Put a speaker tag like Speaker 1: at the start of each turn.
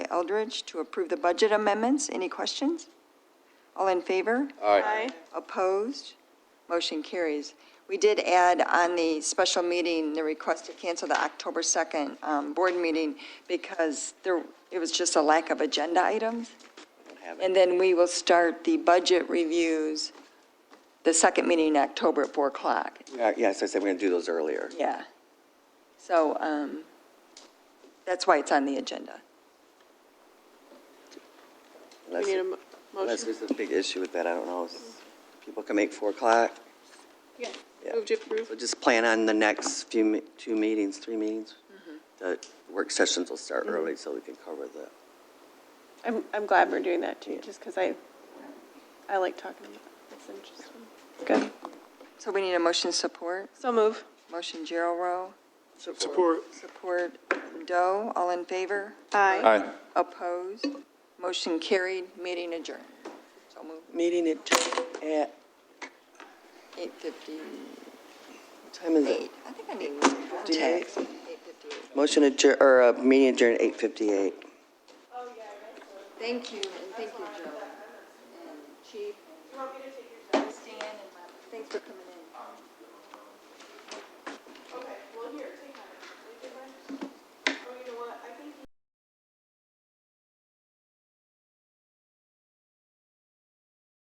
Speaker 1: Eldridge to approve the budget amendments. Any questions? All in favor?
Speaker 2: Aye.
Speaker 1: Opposed? Motion carries. We did add on the special meeting, the request to cancel the October 2nd um, board meeting because there, it was just a lack of agenda items. And then we will start the budget reviews, the second meeting in October at 4 o'clock.
Speaker 2: Uh, Yes, I said we're going to do those earlier.
Speaker 1: Yeah. So um, that's why it's on the agenda.
Speaker 2: Unless-
Speaker 3: need a mo-
Speaker 2: Unless
Speaker 3: motion.
Speaker 2: there's a big issue with that, I don't know. People can make 4 o'clock. Yeah.
Speaker 3: Move to approve.
Speaker 2: So just plan on the next few, me- two meetings, three meetings. The work sessions will start early so we can cover the,
Speaker 3: I'm, I'm glad we're doing that too, just because I, I like talking about it. It's interesting. Good.
Speaker 1: So we need a motion support.
Speaker 3: So move.
Speaker 1: Motion Gerald Rowe,
Speaker 4: Support.
Speaker 1: support Doe. All in favor?
Speaker 3: Aye.
Speaker 1: Opposed? Motion carried, meeting adjourned. So moved,
Speaker 2: meeting at, at,
Speaker 1: 8:58.
Speaker 2: what time is it?
Speaker 1: I think I need more text. 8:58.
Speaker 2: Motion adjourn, or uh, meeting adjourned at 8:58.
Speaker 1: Thank you, and thank you, Joe. And Chief. Do you want me to take your time? Stan and Thanks for coming in.